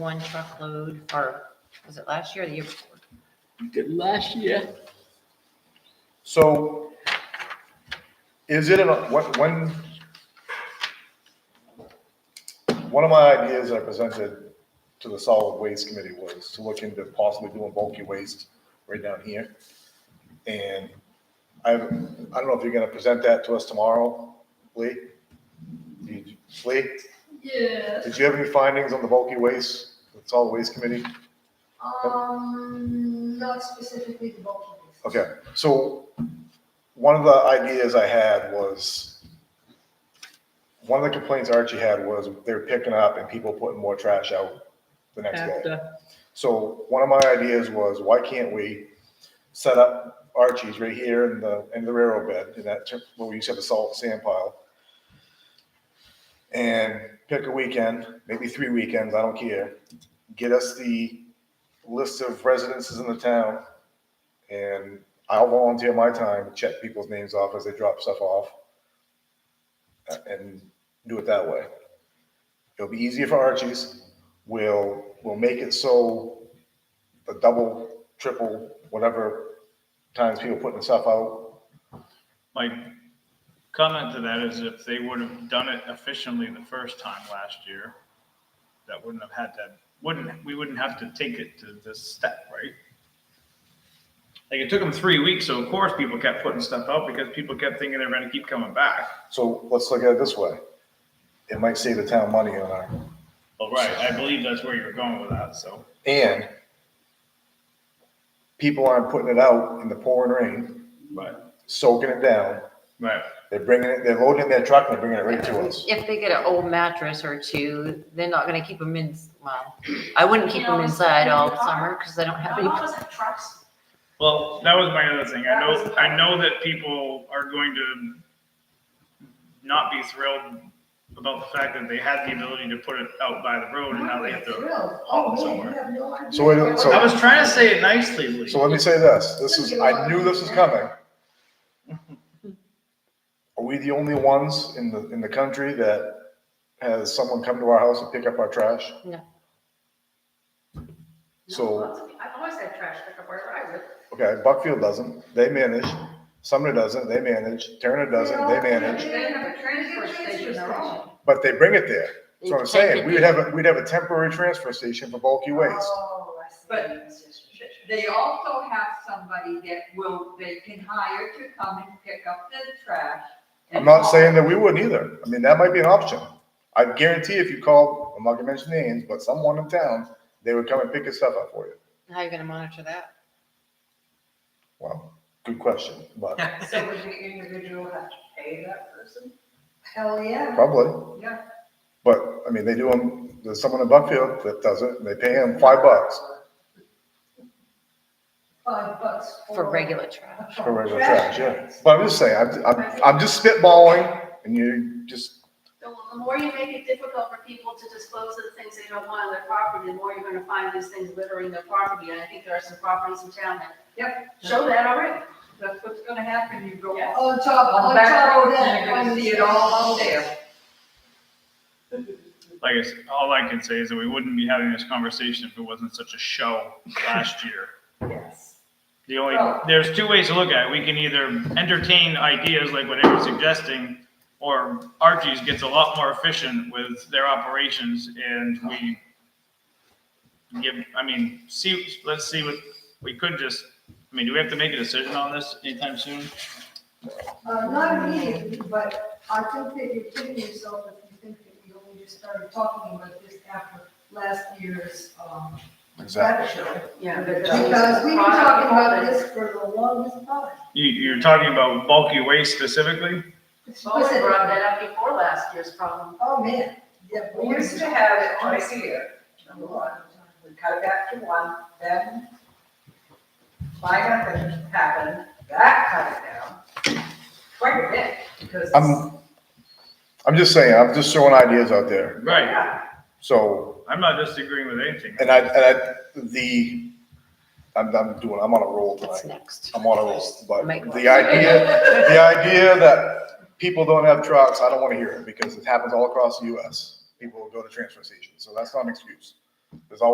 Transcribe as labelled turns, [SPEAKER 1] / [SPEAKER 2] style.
[SPEAKER 1] one truckload, or was it last year or the year before?
[SPEAKER 2] Did last year,
[SPEAKER 3] So is it, in a- what, when? One of my ideas I presented to the solid waste committee was to look into possibly doing bulky waste right down here. And I, I don't know if you're gonna present that to us tomorrow, Lee? Did you- Lee,
[SPEAKER 4] Yeah,
[SPEAKER 3] did you have any findings on the bulky waste, the solid waste committee?
[SPEAKER 4] um, not specifically the bulk of this.
[SPEAKER 3] Okay, so one of the ideas I had was, one of the complaints Archie had was they were picking up and people putting more trash out the next day.
[SPEAKER 2] after,
[SPEAKER 3] So one of my ideas was, why can't we set up Archie's right here in the, in the railroad bed, in that, ter- where we used to have the salt sand pile? And pick a weekend, maybe three weekends, I don't care, get us the list of residences in the town. And I'll volunteer my time, to check people's names off as they drop stuff off. uh, And do it that way. It'll be easier for Archie's, we'll, we'll make it so the double, triple, whatever times people putting stuff out,
[SPEAKER 5] My comment to that is if they would have done it efficiently the first time last year, that wouldn't have had that, wouldn't, we wouldn't have to take it to this step, right? Like it took them three weeks, so of course people kept putting stuff out because people kept thinking they're gonna keep coming back.
[SPEAKER 3] so let's look at it this way. It might save the town money on our,
[SPEAKER 5] Well, right, I believe that's where you're going with that, so.
[SPEAKER 3] and people aren't putting it out in the pouring rain,
[SPEAKER 5] Right.
[SPEAKER 3] soaking it down,
[SPEAKER 5] Right,
[SPEAKER 3] they're bringing it, they're loading it in their truck and they're bringing it right to us.
[SPEAKER 1] If they get an old mattress or two, they're not gonna keep them in, well, I wouldn't keep them inside all summer, because I don't have any.
[SPEAKER 4] Not always in trucks.
[SPEAKER 5] well, that was my other thing, I know, I know that people are going to not be thrilled about the fact that they had the ability to put it out by the road and now they have to
[SPEAKER 4] Thrilled.
[SPEAKER 5] haul
[SPEAKER 4] Oh,
[SPEAKER 5] it
[SPEAKER 4] man,
[SPEAKER 5] somewhere.
[SPEAKER 4] you have no idea.
[SPEAKER 3] So wait, so-
[SPEAKER 5] I was trying to say it nicely, Lee.
[SPEAKER 3] So let me say this, this is, I knew this was coming. Are we the only ones in the, in the country that has someone come to our house and pick up our trash?
[SPEAKER 1] No.
[SPEAKER 3] So,
[SPEAKER 4] I've always had trash pickup wherever I live.
[SPEAKER 3] okay, Buckfield doesn't, they manage, Sumner doesn't, they manage, Turner doesn't, they manage,
[SPEAKER 4] They have a transfer station their own.
[SPEAKER 3] but they bring it there. That's what I'm saying, we would have, a we'd have a temporary transfer station for bulky waste.
[SPEAKER 4] Oh, I see.
[SPEAKER 6] But- They also have somebody that will, they can hire to come and pick up the trash. and
[SPEAKER 3] I'm not
[SPEAKER 6] haul
[SPEAKER 3] saying that we wouldn't either. I mean, that might be an option. I guarantee if you called, I'm not gonna mention names, but someone in town, they would come and pick your stuff up for you.
[SPEAKER 1] How are you gonna monitor that?
[SPEAKER 3] Well, good question, but
[SPEAKER 6] So would the individual have to pay that person?
[SPEAKER 4] Hell, yeah.
[SPEAKER 3] probably.
[SPEAKER 6] Yeah.
[SPEAKER 3] But, I mean, they do them, there's someone in Buckfield that does it, and they pay him five bucks
[SPEAKER 4] Five bucks.
[SPEAKER 1] For regular trash?
[SPEAKER 3] for regular trash, yeah. But I'm just saying, I'm, I'm, I'm just spitballing, and you just,
[SPEAKER 7] The the more you make it difficult for people to dispose of the things they don't want on their property, the more you're gonna find these things littering their property, and I think there are some properties in town that show that already.
[SPEAKER 6] That's what's gonna happen, you go
[SPEAKER 7] Yeah.
[SPEAKER 4] On
[SPEAKER 6] on
[SPEAKER 4] top,
[SPEAKER 6] the
[SPEAKER 4] on
[SPEAKER 6] back
[SPEAKER 4] top
[SPEAKER 6] road
[SPEAKER 4] of
[SPEAKER 6] and
[SPEAKER 4] that.
[SPEAKER 6] you're gonna
[SPEAKER 4] one-
[SPEAKER 6] see it all out there.
[SPEAKER 5] Like I said, all I can say is that we wouldn't be having this conversation if it wasn't such a show last year.
[SPEAKER 6] Yes.
[SPEAKER 5] The only,
[SPEAKER 6] Well-
[SPEAKER 5] there's two ways to look at it. We can either entertain ideas like what Eric's suggesting, or Archie's gets a lot more efficient with their operations and we give, I mean, see, let's see what, we could just, I mean, do we have to make a decision on this anytime soon?
[SPEAKER 4] Uh, not immediately, but I think that you're kidding yourself if you think that we only just started talking about this after last year's, um,
[SPEAKER 3] exactly.
[SPEAKER 4] traffic show.
[SPEAKER 6] Yeah.
[SPEAKER 4] Because we've been talking about this for the longest time.
[SPEAKER 5] You, you're talking about bulky waste specifically?
[SPEAKER 7] Well, we brought that up before last year's problem.
[SPEAKER 4] Oh, man, yeah.
[SPEAKER 6] We used to have it on here, number one, we cut it back to one, then minor happened, that cut it down quite a bit, because.
[SPEAKER 3] I'm, I'm just saying, I'm just throwing ideas out there.
[SPEAKER 5] Right,
[SPEAKER 6] Yeah,
[SPEAKER 3] So
[SPEAKER 5] I'm not disagreeing with anything.
[SPEAKER 3] And I, and I, the, I'm, I'm doing, I'm on a roll
[SPEAKER 1] That's
[SPEAKER 3] tonight.
[SPEAKER 1] next.
[SPEAKER 3] I'm on a roll, but
[SPEAKER 1] Make one.
[SPEAKER 3] the idea, the idea that people don't have trucks, I don't wanna hear it because it happens all across the US. People go to transfer stations, so that's not an excuse. There's always